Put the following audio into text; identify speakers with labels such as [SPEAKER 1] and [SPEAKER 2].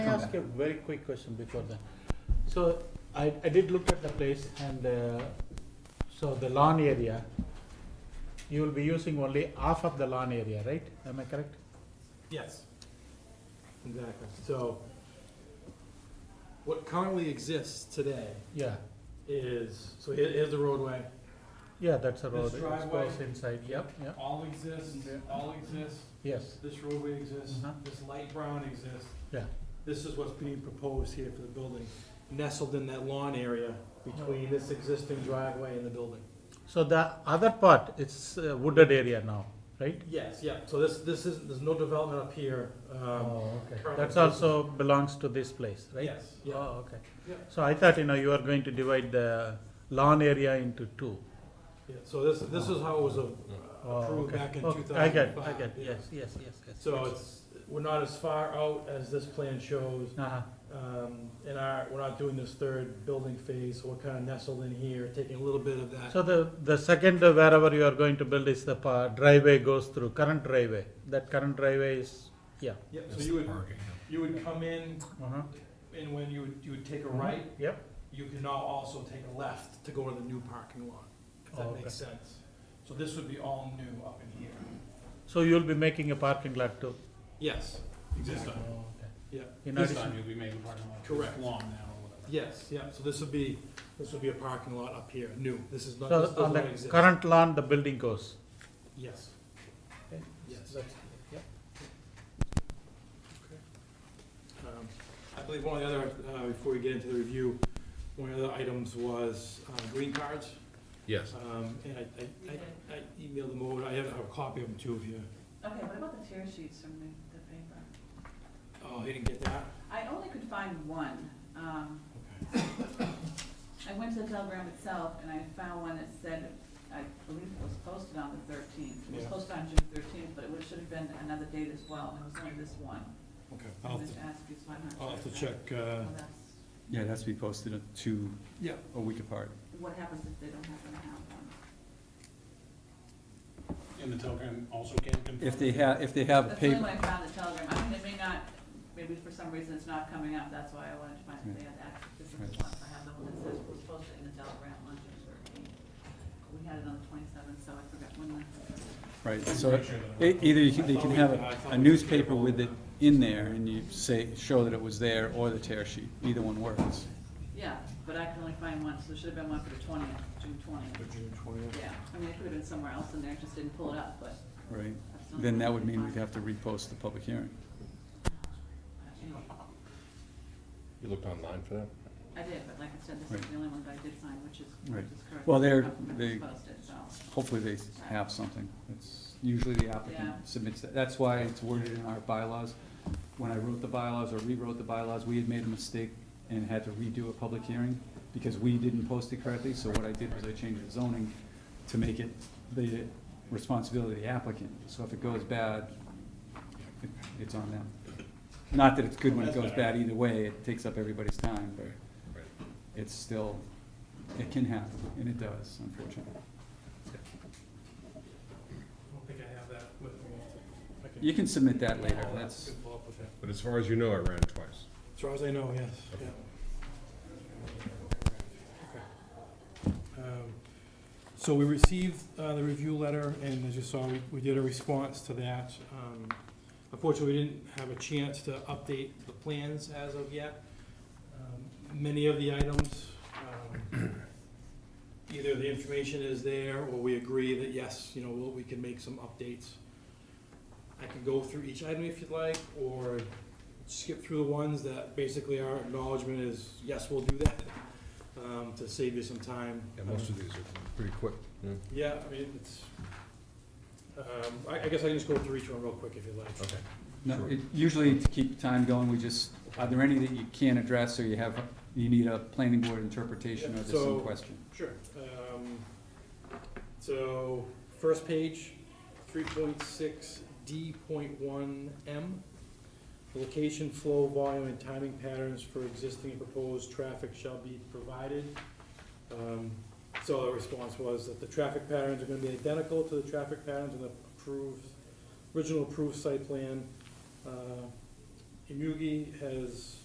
[SPEAKER 1] ask a very quick question before that? So I, I did look at the place and, uh, so the lawn area, you will be using only half of the lawn area, right? Am I correct?
[SPEAKER 2] Yes. Exactly. So what currently exists today
[SPEAKER 1] Yeah,
[SPEAKER 2] is, so here- here's the roadway.
[SPEAKER 1] yeah, that's a road,
[SPEAKER 2] This
[SPEAKER 1] it
[SPEAKER 2] driveway?
[SPEAKER 1] goes inside, yep, yep,
[SPEAKER 2] All exists, all exists,
[SPEAKER 1] yes,
[SPEAKER 2] this roadway exists,
[SPEAKER 1] Mhm.
[SPEAKER 2] this light brown exists.
[SPEAKER 1] Yeah.
[SPEAKER 2] This is what's being proposed here for the building, nestled in that lawn area between this existing driveway and the building.
[SPEAKER 1] so the other part, it's uh, wooded area now, right?
[SPEAKER 2] Yes, yeah, so this, this is, there's no development up here. um,
[SPEAKER 1] Oh, okay,
[SPEAKER 2] currently
[SPEAKER 1] that's also
[SPEAKER 2] existing.
[SPEAKER 1] belongs to this place, right?
[SPEAKER 2] Yes, yeah,
[SPEAKER 1] Oh, okay.
[SPEAKER 2] Yeah.
[SPEAKER 1] So I thought, you know, you were going to divide the lawn area into two.
[SPEAKER 2] yeah, so this, this is how it was uh,
[SPEAKER 1] Oh,
[SPEAKER 2] approved
[SPEAKER 1] okay.
[SPEAKER 2] back in
[SPEAKER 1] Okay,
[SPEAKER 2] two thousand
[SPEAKER 1] I
[SPEAKER 2] and
[SPEAKER 1] get,
[SPEAKER 2] five.
[SPEAKER 1] I get, yes, yes, yes, yes.
[SPEAKER 2] So it's, we're not as far out as this plan shows,
[SPEAKER 1] Uh-huh,
[SPEAKER 2] um, and our, we're not doing this third building phase, so we're kinda nestled in here, taking a little bit of that.
[SPEAKER 1] so the, the second uh, wherever you are going to build is the pa- driveway goes through, current driveway. That current driveway is, yeah.
[SPEAKER 2] Yep, so you would, you would come in,
[SPEAKER 1] Uh-huh.
[SPEAKER 2] and when you would, you would
[SPEAKER 1] Mm-hmm.
[SPEAKER 2] take a right,
[SPEAKER 1] Yep,
[SPEAKER 2] you can now also take a left to go to the new parking lot, if
[SPEAKER 1] Oh,
[SPEAKER 2] that
[SPEAKER 1] okay.
[SPEAKER 2] makes sense. So this would be all new up in here.
[SPEAKER 1] so you'll be making a parking lot too?
[SPEAKER 2] Yes, exactly,
[SPEAKER 1] Oh, okay.
[SPEAKER 2] yeah.
[SPEAKER 1] In
[SPEAKER 3] This
[SPEAKER 1] addition,
[SPEAKER 3] time you'll be making parking lot.
[SPEAKER 2] Correct.
[SPEAKER 3] Long now or whatever.
[SPEAKER 2] Yes, yeah, so this would be, this would be a parking lot up here, new, this is not, this
[SPEAKER 1] so on
[SPEAKER 2] doesn't
[SPEAKER 1] the
[SPEAKER 2] exist.
[SPEAKER 1] current lawn, the building goes?
[SPEAKER 2] Yes.
[SPEAKER 1] Okay.
[SPEAKER 2] Yes.
[SPEAKER 1] That's- yep.
[SPEAKER 2] Um, I believe one of the other, uh, before we get into the review, one of the other items was uh, green cards.
[SPEAKER 4] Yes.
[SPEAKER 2] Um, And I- I I- I emailed them over, I have a copy of them too if you,
[SPEAKER 5] Okay, what about the tear sheets from the, the paper?
[SPEAKER 2] oh, you didn't get that?
[SPEAKER 5] I only could find one. Um,
[SPEAKER 2] Okay.
[SPEAKER 5] I went to the telegram itself and I found one that said, I believe it was posted on the thirteenth. It was
[SPEAKER 2] Yeah.
[SPEAKER 5] posted on June thirteenth, but it would- should have been another date as well, and it was only this one.
[SPEAKER 2] Okay.
[SPEAKER 5] I
[SPEAKER 2] I'll
[SPEAKER 5] was
[SPEAKER 2] have to-
[SPEAKER 5] gonna ask you, so I'm not sure.
[SPEAKER 2] I'll have to
[SPEAKER 5] if that-
[SPEAKER 2] check, uh,
[SPEAKER 5] well, that's-
[SPEAKER 6] Yeah, it has to be posted at two,
[SPEAKER 2] yeah,
[SPEAKER 6] a week apart.
[SPEAKER 5] What happens if they don't happen to have one?
[SPEAKER 3] And the telegram also can't confirm.
[SPEAKER 6] If they have, if they have
[SPEAKER 5] That's the only
[SPEAKER 6] paper,
[SPEAKER 5] one I found the telegram. I mean, it may not, maybe for some reason it's not coming up, that's why I wanted to find if they had access to some
[SPEAKER 6] Right.
[SPEAKER 5] slots. I have the one that says was posted in the telegram on June thirteenth. We had it on the twenty-seventh, so I forgot when the.
[SPEAKER 6] right, so e- either you can- they can have a- a newspaper with it in there and you say, show that it was there, or the tear sheet, either one works.
[SPEAKER 5] Yeah, but I can only find one, so it should have been one for the twentieth, June
[SPEAKER 2] for
[SPEAKER 5] twentieth.
[SPEAKER 2] June twentieth.
[SPEAKER 5] Yeah, I mean, it could have been somewhere else in there, I just didn't pull it up, but.
[SPEAKER 6] Right,
[SPEAKER 5] that's not-
[SPEAKER 6] then that would mean we'd have to repost the public hearing.
[SPEAKER 5] Anyway,
[SPEAKER 4] You looked online for that?
[SPEAKER 5] I did, but like I said, this is the only one that I did find, which is, which
[SPEAKER 6] Right.
[SPEAKER 5] is correct.
[SPEAKER 6] Well, they're-
[SPEAKER 5] It was
[SPEAKER 6] they-
[SPEAKER 5] Posted, so.
[SPEAKER 6] Hopefully they have something. It's usually the applicant
[SPEAKER 5] Yeah.
[SPEAKER 6] submits that. That's why it's worded in our bylaws. When I wrote the bylaws or rewrote the bylaws, we had made a mistake and had to redo a public hearing because we didn't post it correctly. So what I did was I changed the zoning to make it the responsibility of the applicant. So if it goes bad, it- it's on them. Not that it's good when it goes bad either way, it takes up everybody's time, but it's still, it can happen, and it does, unfortunately.
[SPEAKER 2] I don't think I have that with me. I can-
[SPEAKER 6] You can submit that later,
[SPEAKER 2] I'll- I
[SPEAKER 6] that's,
[SPEAKER 2] can follow up with that.
[SPEAKER 4] But as far as you know, I ran twice.
[SPEAKER 2] As far as I know, yes, yeah. Um, So we received uh, the review letter, and as you saw, we- we did a response to that. Um, Unfortunately, we didn't have a chance to update the plans as of yet. Um, Many of the items, um, either the information is there, or we agree that, yes, you know, we'll- we can make some updates. I can go through each item if you'd like, or skip through the ones that basically our acknowledgement is, yes, we'll do that, um, to save you some time.
[SPEAKER 4] Yeah, most of these are pretty quick.
[SPEAKER 2] Yeah, I mean, it's, um, I, I guess I can just go through each one real quick if you'd like.
[SPEAKER 4] Okay.
[SPEAKER 6] no, it- usually to keep time going, we just, are there any that you can't address, or you have, you need a planning board interpretation, or there's
[SPEAKER 2] So-
[SPEAKER 6] some question?
[SPEAKER 2] Sure. Um, so, first page, three point six D point one M. Location, flow, volume, and timing patterns for existing and proposed traffic shall be provided. Um, so the response was that the traffic patterns are gonna be identical to the traffic patterns in the approved, original approved site plan. Uh, Imugi has